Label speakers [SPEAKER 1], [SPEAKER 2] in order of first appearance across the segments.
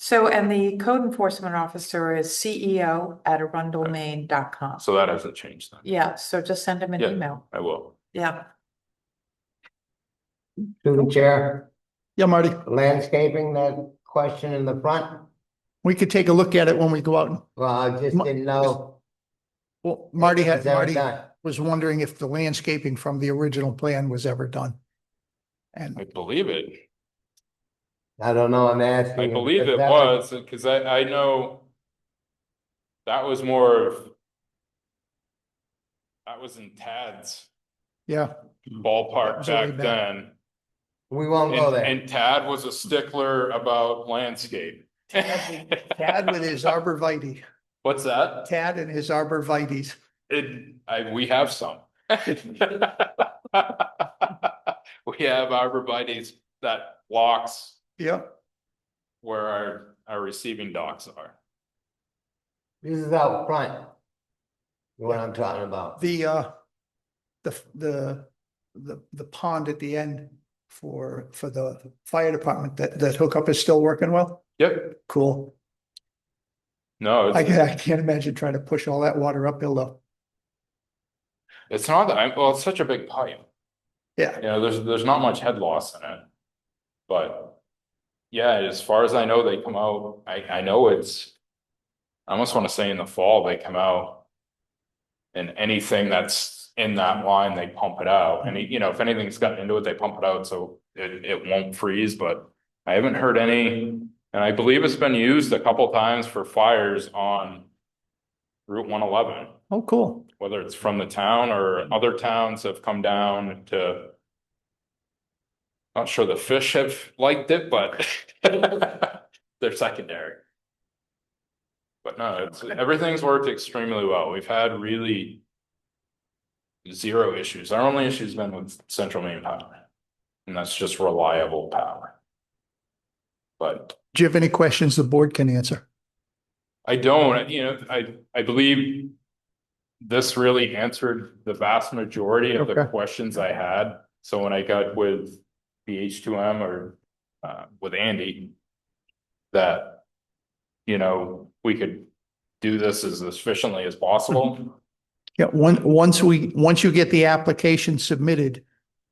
[SPEAKER 1] So, and the code enforcement officer is CEO at ceo@arundelmain.com.
[SPEAKER 2] So that hasn't changed then.
[SPEAKER 1] Yeah, so just send him an
[SPEAKER 2] Yeah.
[SPEAKER 1] email.
[SPEAKER 2] I will.
[SPEAKER 1] Yeah,
[SPEAKER 3] Through the chair,
[SPEAKER 4] Yeah, Marty,
[SPEAKER 3] landscaping that question in the front,
[SPEAKER 4] we could take a look at it when we go out. and-
[SPEAKER 3] well, I just
[SPEAKER 4] Ma-
[SPEAKER 3] didn't know.
[SPEAKER 4] Well, Marty
[SPEAKER 3] Is
[SPEAKER 4] had,
[SPEAKER 3] that
[SPEAKER 4] Marty
[SPEAKER 3] done?
[SPEAKER 4] was wondering if the landscaping from the original plan was ever done.
[SPEAKER 2] I
[SPEAKER 4] And
[SPEAKER 2] believe it.
[SPEAKER 3] I don't know, I'm asking.
[SPEAKER 2] I
[SPEAKER 3] you,
[SPEAKER 2] believe
[SPEAKER 3] because
[SPEAKER 2] it
[SPEAKER 3] that
[SPEAKER 2] was, because I, I know that was more of that was in Tad's
[SPEAKER 4] yeah, That
[SPEAKER 3] Hmm.
[SPEAKER 2] ballpark
[SPEAKER 4] was way
[SPEAKER 2] back
[SPEAKER 4] back.
[SPEAKER 2] then.
[SPEAKER 3] We won't go
[SPEAKER 2] And,
[SPEAKER 3] there.
[SPEAKER 2] and Tad was a stickler about landscape.
[SPEAKER 4] Tad with his arborvitae,
[SPEAKER 2] What's that?
[SPEAKER 4] Tad and his arborvitae's.
[SPEAKER 2] It, I, we have some. We have arborvitae's that blocks
[SPEAKER 4] Yeah,
[SPEAKER 2] where our, our receiving docks are.
[SPEAKER 3] This is out front. What I'm talking about.
[SPEAKER 4] the, uh, the, the, the, the pond at the end for, for the fire department, that, that hookup is still working well?
[SPEAKER 2] Yep,
[SPEAKER 4] Cool.
[SPEAKER 2] no,
[SPEAKER 4] I
[SPEAKER 2] it's,
[SPEAKER 4] can't, I can't imagine trying to push all that water uphill though.
[SPEAKER 2] it's not that, I'm- well, it's such a big pipe.
[SPEAKER 4] Yeah,
[SPEAKER 2] You know, there's, there's not much head loss in it. But yeah, as far as I know, they come out, I, I know it's, I almost want to say in the fall, they come out. And anything that's in that line, they pump it out. Any, you know, if anything's gotten into it, they pump it out, so it, it won't freeze, but I haven't heard any. And I believe it's been used a couple times for fires on Route one eleven
[SPEAKER 4] oh, cool.
[SPEAKER 2] whether it's from the town or other towns have come down to. Not sure the fish have liked it, but they're secondary. But no, it's, everything's worked extremely well. We've had really. Zero issues. Our only issue's been with Central Maine Power. And that's just reliable power. But
[SPEAKER 4] Do you have any questions the board can answer?
[SPEAKER 2] I don't, you know, I, I believe this really answered the vast majority of the
[SPEAKER 4] Okay.
[SPEAKER 2] questions I had. So when I got with BH two M or, uh, with Andy, that, you know, we could do this as efficiently as possible.
[SPEAKER 4] Yeah, one, once we, once you get the application submitted,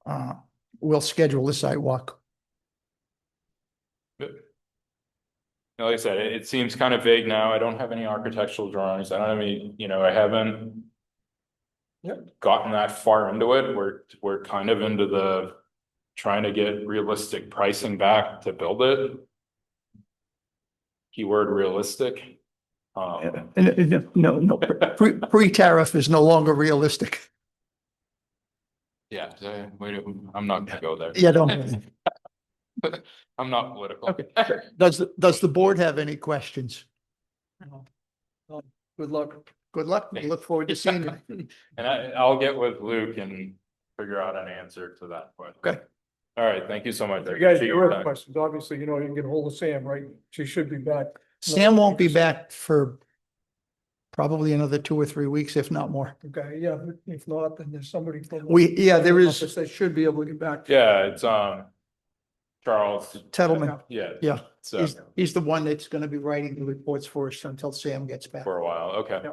[SPEAKER 4] uh, we'll schedule a sidewalk.
[SPEAKER 2] Now, Like I said, it, it seems kind of vague now. I don't have any architectural drawings. I don't have any, you know, I haven't. Gotten that far into it. We're, we're kind of into the. Trying to get realistic pricing back to build it. Keyword realistic. Um,
[SPEAKER 4] And, and, No, no, pre, pre-tariff is no longer realistic.
[SPEAKER 2] yeah, so, wait, I'm not gonna go there.
[SPEAKER 4] Yeah, don't,
[SPEAKER 2] I'm not political.
[SPEAKER 4] Okay. does, the- does the board have any questions?
[SPEAKER 1] No.
[SPEAKER 4] Well, Good luck. Good luck. We look forward to seeing you.
[SPEAKER 2] And I, I'll get with Luke and figure out an answer to that. question.
[SPEAKER 4] Okay.
[SPEAKER 2] All right, thank you so much. I
[SPEAKER 5] You guys,
[SPEAKER 2] appreciate
[SPEAKER 5] your
[SPEAKER 2] your
[SPEAKER 5] other
[SPEAKER 2] time.
[SPEAKER 5] questions, obviously, you know, you can get hold of Sam, right? She should be back.
[SPEAKER 4] Sam won't be back for probably another two or three weeks, if not more.
[SPEAKER 5] Okay, yeah, if not, then there's somebody from. the
[SPEAKER 4] We, yeah, there is
[SPEAKER 5] office That should be able to get back.
[SPEAKER 2] Yeah, it's, um, Charles,
[SPEAKER 4] Tettleman.
[SPEAKER 2] yeah, uh,
[SPEAKER 4] Yeah,
[SPEAKER 2] so,
[SPEAKER 4] he's, he's the one that's going to be writing the reports for us until Sam gets back.
[SPEAKER 2] for a while, okay.
[SPEAKER 5] Yeah.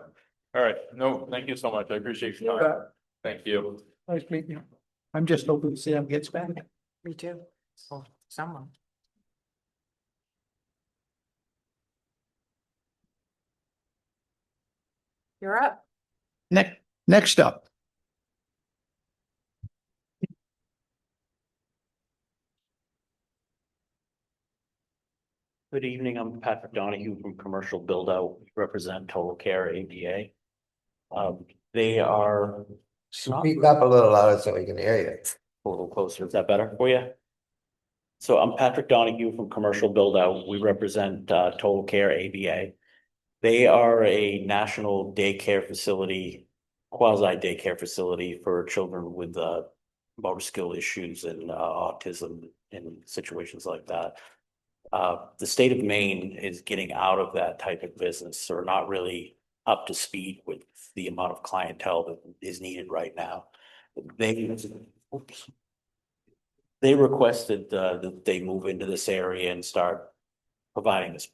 [SPEAKER 2] All right, no, thank you so much, I appreciate your time,
[SPEAKER 5] Back.
[SPEAKER 2] thank you.
[SPEAKER 5] Nice meeting you.
[SPEAKER 4] I'm just hoping Sam gets back.
[SPEAKER 1] me too. Well, Someone. You're up.
[SPEAKER 4] Next, next up.
[SPEAKER 6] Good evening, I'm Patrick Donahue from Commercial Build Out, We represent Total Care ADA. Um, they are. it's not-
[SPEAKER 3] Speak up a little louder so we can hear you.
[SPEAKER 6] a little closer. Is that better for you? So I'm Patrick Donahue from Commercial Build Out. We represent uh, Total Care ABA. They are a national daycare facility, quasi daycare facility for children with uh, motor skill issues and uh, autism and situations like that. Uh, The state of Maine is getting out of that type of business or not really up to speed with the amount of clientele that is needed right now. They, oops. They requested uh, that they move into this area and start providing this